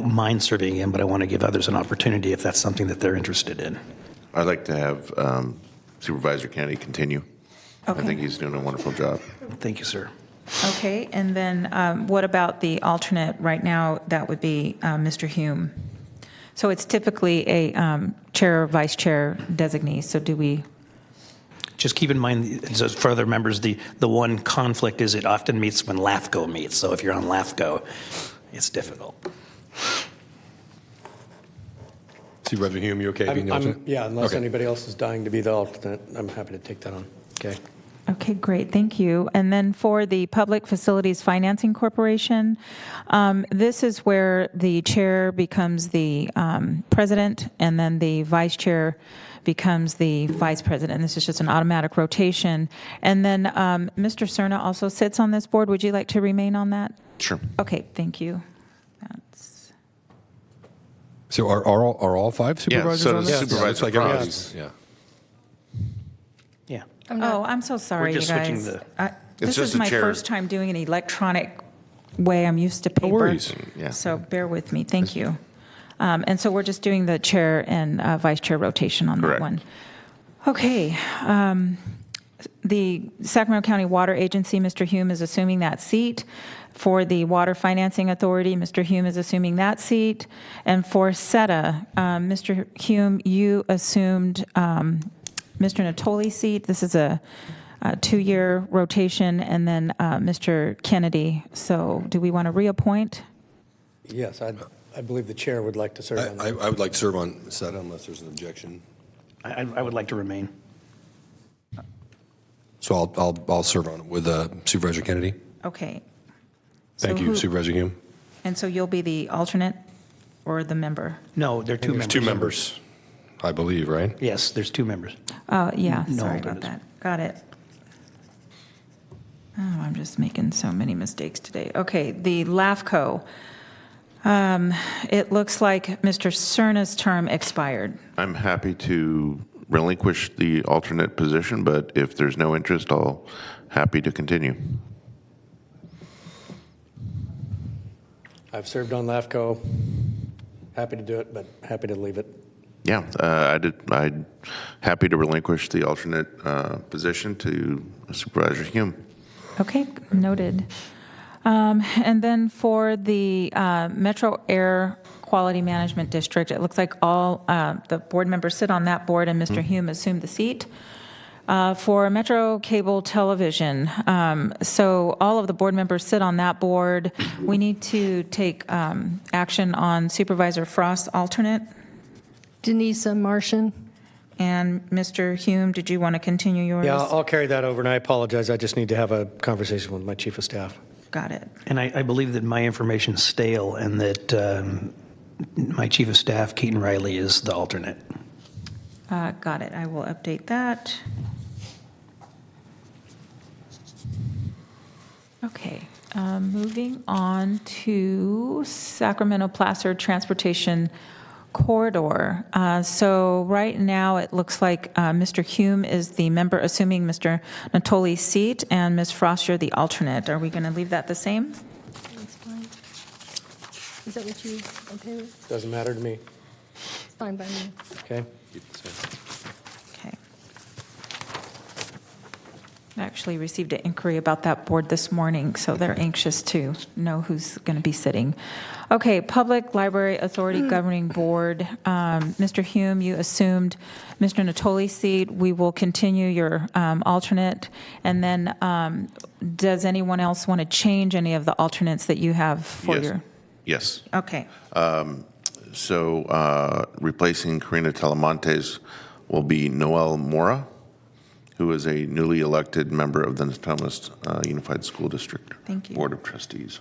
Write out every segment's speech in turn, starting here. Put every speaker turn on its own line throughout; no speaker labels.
don't mind serving in, but I want to give others an opportunity if that's something that they're interested in.
I'd like to have um, Supervisor Kennedy continue. I
Okay.
think he's doing a wonderful job.
Thank you, sir.
Okay, and then um, what about the alternate? Right now, that would be uh, Mr. Hume. So it's typically a um, chair or vice chair designee, so do we,
Just keep in mind, so for other members, the, the one conflict is it often meets when LAFCO meets. So if you're on LAFCO, it's difficult.
Supervisor Hume, you okay
I'm-
being the
I'm-
alternate?
Yeah, unless
Okay.
anybody else is dying to be the alternate, I'm happy to take that on. Okay.
okay, great, thank you. And then for the Public Facilities Financing Corporation, um, this is where the chair becomes the um, president, and then the vice chair becomes the vice president. This is just an automatic rotation. And then um, Mr. Cerna also sits on this board. Would you like to remain on that?
Sure.
Okay, thank you. That's-
So are, are, all, are all five supervisors
so
on
does
this?
Supervisor
Looks like
Frost.
everybody's- Yeah.
Yeah.
Oh, I'm so sorry, you
just switching
guys.
the-
I- This
just
is
a
my
chair.
first time doing an electronic way. I'm used to paper.
worries.
Yeah.
So bear with me, thank you. Um, And so we're just doing the chair and uh, vice chair rotation on that
Correct.
one. Okay. um, The Sacramento County Water Agency, Mr. Hume is assuming that seat. For the Water Financing Authority, Mr. Hume is assuming that seat. And for SETA, um, Mr. Hume, you assumed um, Mr. Natoli's seat. This is a uh, two-year rotation, and then uh, Mr. Kennedy. So do we want to reappoint?
Yes, I, I believe the chair would like to serve on
I,
that.
I would like to serve on SETA unless there's an objection.
I, I- I would like to remain.
So I'll, I'll, I'll serve on it with uh, Supervisor Kennedy.
Okay.
Thank
So
you,
who-
Supervisor Hume.
And so you'll be the alternate or the member?
No, there are two members.
There's two members, I believe, right?
Yes, there's two members.
Oh, yeah,
No,
sorry
that
about
is-
that. Got it. Oh, I'm just making so many mistakes today. Okay, the LAFCO. Um, It looks like Mr. Cerna's term expired.
I'm happy to relinquish the alternate position, but if there's no interest, I'll happy to continue.
I've served on LAFCO, happy to do it, but happy to leave it.
Yeah, uh, I did, I'd happy to relinquish the alternate uh, position to Supervisor Hume.
Okay, noted. Um, And then for the uh, Metro Air Quality Management District, it looks like all uh, the board members sit on that board, and
Mm-hmm.
Mr. Hume assumed the seat. Uh, For Metro Cable Television, um, so all of the board members sit on that board. We need to take um, action on Supervisor Frost's alternate.
Denise Martian.
And Mr. Hume, did you want to continue yours?
Yeah, I'll carry that over, and I apologize, I just need to have a conversation with my chief of staff.
Got it.
And I, I believe that my information is stale and that um, my chief of staff, Keaton Riley, is the alternate.
Uh, Got it. I will update that. Okay, um, moving on to Sacramento Placer Transportation Corridor. Uh, So right now, it looks like uh, Mr. Hume is the member assuming Mr. Natoli's seat, and Ms. Frost, you're the alternate. Are we going to leave that the same?
That's fine. Is that what you, okay with?
Doesn't matter to me,
It's fine by me.
okay?
Okay. I actually received an inquiry about that board this morning, so they're anxious to know who's going to be sitting. Okay, Public Library Authority Governing Board, um, Mr. Hume, you assumed Mr. Natoli's seat. We will continue your um, alternate. And then, um, does anyone else want to change any of the alternates that you have for
Yes.
your?
Yes.
Okay,
So uh, replacing Karina Telemontes will be Noel Mora, who is a newly elected member of the Natomas uh, Unified School District
Thank you.
Board of Trustees.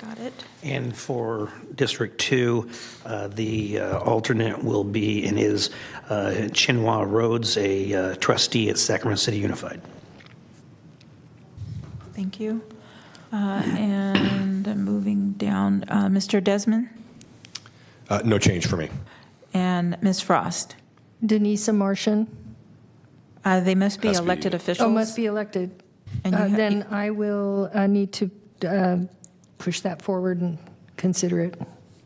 got it.
And for District 2, uh, the uh, alternate will be and is uh, Chinua Rhodes, a uh, trustee at Sacramento City Unified.
Thank you. Uh, And moving down, uh, Mr. Desmond
Uh, no change for me.
and Ms. Frost.
Denise Martian.
Uh, They must be
Has to be-
elected officials.
Oh, must be elected.
And you
Uh,
ha-
Then I will uh, need to uh, push that forward and consider it.